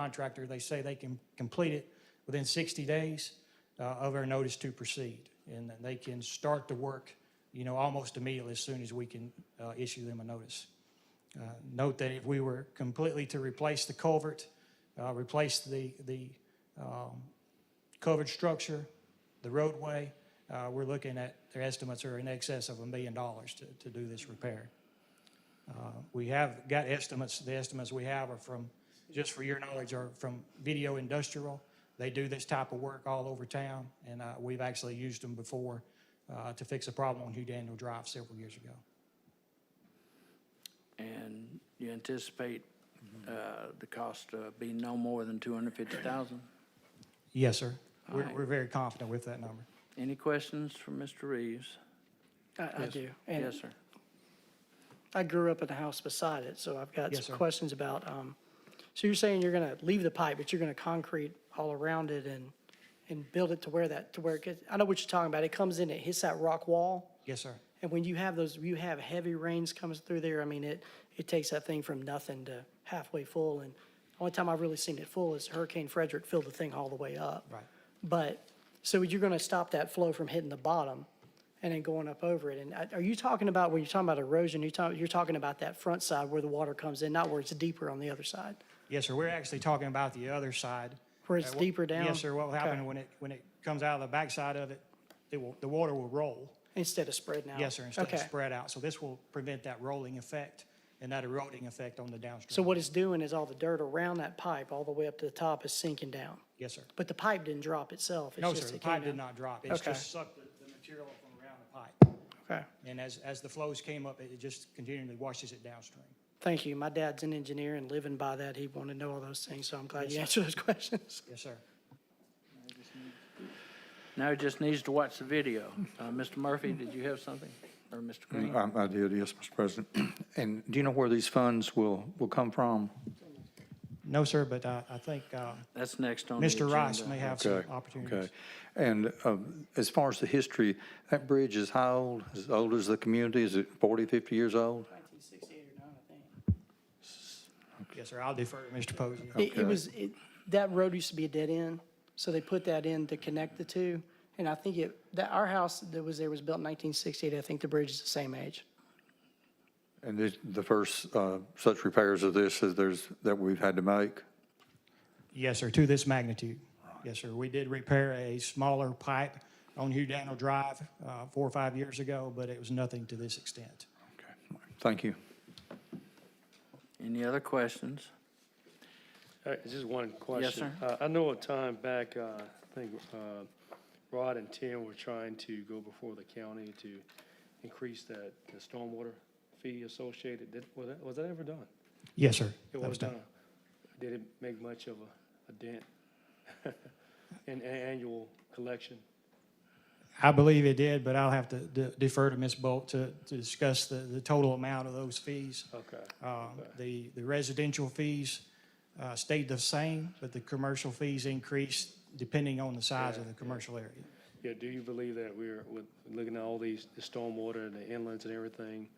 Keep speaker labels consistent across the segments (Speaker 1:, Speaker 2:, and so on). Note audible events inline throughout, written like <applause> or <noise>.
Speaker 1: contractor, they say they can complete it within 60 days uh, of our notice to proceed. And that they can start the work, you know, almost immediately as soon as we can uh, issue them a notice. Uh, Note that if we were completely to replace the culvert, uh, replace the, the um, covered structure, the roadway, uh, we're looking at, their estimates are in excess of a million dollars to, to do this repair. Uh, We have got estimates, the estimates we have are from, just for your knowledge, are from Video Industrial. They do this type of work all over town, and uh, we've actually used them before uh, to fix a problem on Hugh Daniel Drive several years ago.
Speaker 2: And you anticipate uh, the cost uh, being no more than 250,000?
Speaker 1: Yes, sir. We're,
Speaker 2: Alright.
Speaker 1: we're very confident with that number.
Speaker 2: Any questions from Mr. Reeves?
Speaker 3: I, I do. And
Speaker 2: Yes, sir.
Speaker 3: I grew up in the house beside it, so I've got
Speaker 1: Yes,
Speaker 3: some
Speaker 1: sir.
Speaker 3: questions about, um, so you're saying you're gonna leave the pipe, but you're gonna concrete all around it and, and build it to where that, to where it gets, I know what you're talking about. It comes in, it hits that rock wall.
Speaker 1: Yes, sir.
Speaker 3: And when you have those, you have heavy rains comes through there, I mean, it, it takes that thing from nothing to halfway full. And the only time I've really seen it full is Hurricane Frederick filled the thing all the way up.
Speaker 1: Right.
Speaker 3: But, so you're gonna stop that flow from hitting the bottom and then going up over it. And I- are you talking about, when you're talking about erosion, you're talking, you're talking about that front side where the water comes in, not where it's deeper on the other side?
Speaker 1: Yes, sir. We're actually talking about the other side.
Speaker 3: Where it's
Speaker 1: Uh, wh-
Speaker 3: deeper down?
Speaker 1: Yes, sir. What will happen when it, when it comes out of the backside of it, it will, the water will roll.
Speaker 3: Instead of spreading out?
Speaker 1: Yes, sir, instead of
Speaker 3: Okay.
Speaker 1: spread out. So this will prevent that rolling effect and that eroding effect on the downstream.
Speaker 3: So what it's doing is all the dirt around that pipe, all the way up to the top is sinking down.
Speaker 1: Yes, sir.
Speaker 3: But the pipe didn't drop itself. it's
Speaker 1: No,
Speaker 3: just
Speaker 1: sir, the
Speaker 3: it came
Speaker 1: pipe did
Speaker 3: down.
Speaker 1: not drop. It's
Speaker 3: Okay.
Speaker 1: just sucked the, the material from around the pipe.
Speaker 3: Okay,
Speaker 1: And as, as the flows came up, it it just continually washes it downstream.
Speaker 3: thank you. My dad's an engineer and living by that, he wanted to know all those things, so I'm glad you answered those <laughs> questions.
Speaker 1: Yes, sir.
Speaker 2: Now he just needs to watch the video. Uh, Mr. Murphy, did you have something? Or Mr. Green?
Speaker 4: Um, I did, yes, Mr. President. <clears throat> And do you know where these funds will, will come from?
Speaker 1: No, sir, but I, I think, uh,
Speaker 2: That's next on the agenda.
Speaker 1: Mr. Rice may have some
Speaker 4: Okay,
Speaker 1: opportunities.
Speaker 4: okay. And um, as far as the history, that bridge is how old? As old as the community? Is it 40, 50 years old?
Speaker 3: Nineteen sixty-eight or nine, I think.
Speaker 1: Yes, sir, I'll defer to Mr. Posey.
Speaker 3: It,
Speaker 4: Okay.
Speaker 3: it was, it, that road used to be a dead end, so they put that in to connect the two. And I think it, that, our house that was there was built in nineteen sixty-eight, I think the bridge is the same age.
Speaker 4: And this- the first uh, such repairs of this is there's, that we've had to make?
Speaker 1: Yes, sir, to this magnitude. Yes, sir. We did repair a smaller pipe on Hugh Daniel Drive, uh, four or five years ago, but it was nothing to this extent.
Speaker 4: Okay. Thank you.
Speaker 2: Any other questions?
Speaker 5: All right, Just one question.
Speaker 2: sir.
Speaker 5: Uh, I know a time back, uh, I think uh, Rod and Tim were trying to go before the county to increase that, the stormwater fee associated. Did- Was that, was that ever done?
Speaker 1: Yes, sir.
Speaker 5: It
Speaker 1: That
Speaker 5: was done. Did it make much of a- a dent <laughs> in a- annual collection?
Speaker 1: I believe it did, but I'll have to de- defer to Ms. Bolt to, to discuss the, the total amount of those fees.
Speaker 5: Okay.
Speaker 1: Um, The, the residential fees uh, stayed the same, but the commercial fees increased depending on the size of the commercial area.
Speaker 5: Yeah, do you believe that we're, with looking at all these, the stormwater and the inlets and everything,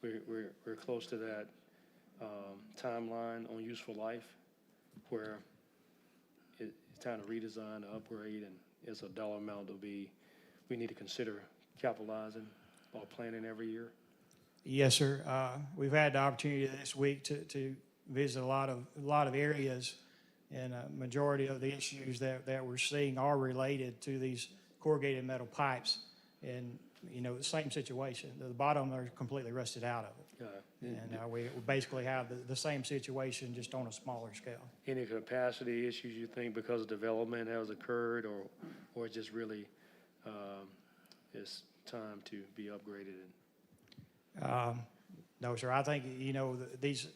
Speaker 5: we're, we're, we're close to that, um, timeline on useful life where it, it's time to redesign, upgrade, and it's a dollar amount to be, we need to consider capitalizing or planning every year?
Speaker 1: Yes, sir. Uh, We've had the opportunity this week to, to visit a lot of, a lot of areas, and a majority of the issues that, that we're seeing are related to these corrugated metal pipes. And, you know, the same situation. The bottom are completely rusted out of it.
Speaker 5: Uh,
Speaker 1: And uh, we we basically have the, the same situation, just on a smaller scale.
Speaker 5: Any capacity issues you think because development has occurred or, or just really, um, it's time to be upgraded and
Speaker 1: Um, No, sir, I think, you know, th- these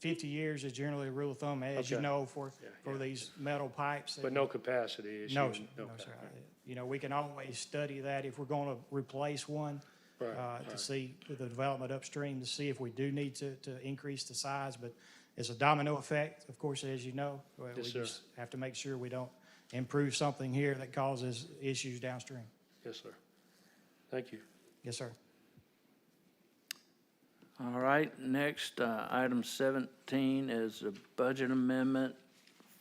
Speaker 1: 50 years is generally a rule of thumb, as you
Speaker 5: Okay.
Speaker 1: know, for,
Speaker 5: Yeah,
Speaker 1: for
Speaker 5: yeah.
Speaker 1: these metal pipes.
Speaker 5: But no capacity issue?
Speaker 1: No, sir, no,
Speaker 5: Okay.
Speaker 1: sir. I- You know, we can always study that if we're going to replace one,
Speaker 5: Right,
Speaker 1: uh, to
Speaker 5: right.
Speaker 1: see the development upstream, to see if we do need to, to increase the size. But it's a domino effect, of course, as you know. We-
Speaker 5: Yes,
Speaker 1: we
Speaker 5: sir.
Speaker 1: just Have to make sure we don't improve something here that causes issues downstream.
Speaker 5: Yes, sir. Thank you.
Speaker 1: Yes, sir.
Speaker 2: All right, next, uh, item 17 is a budget amendment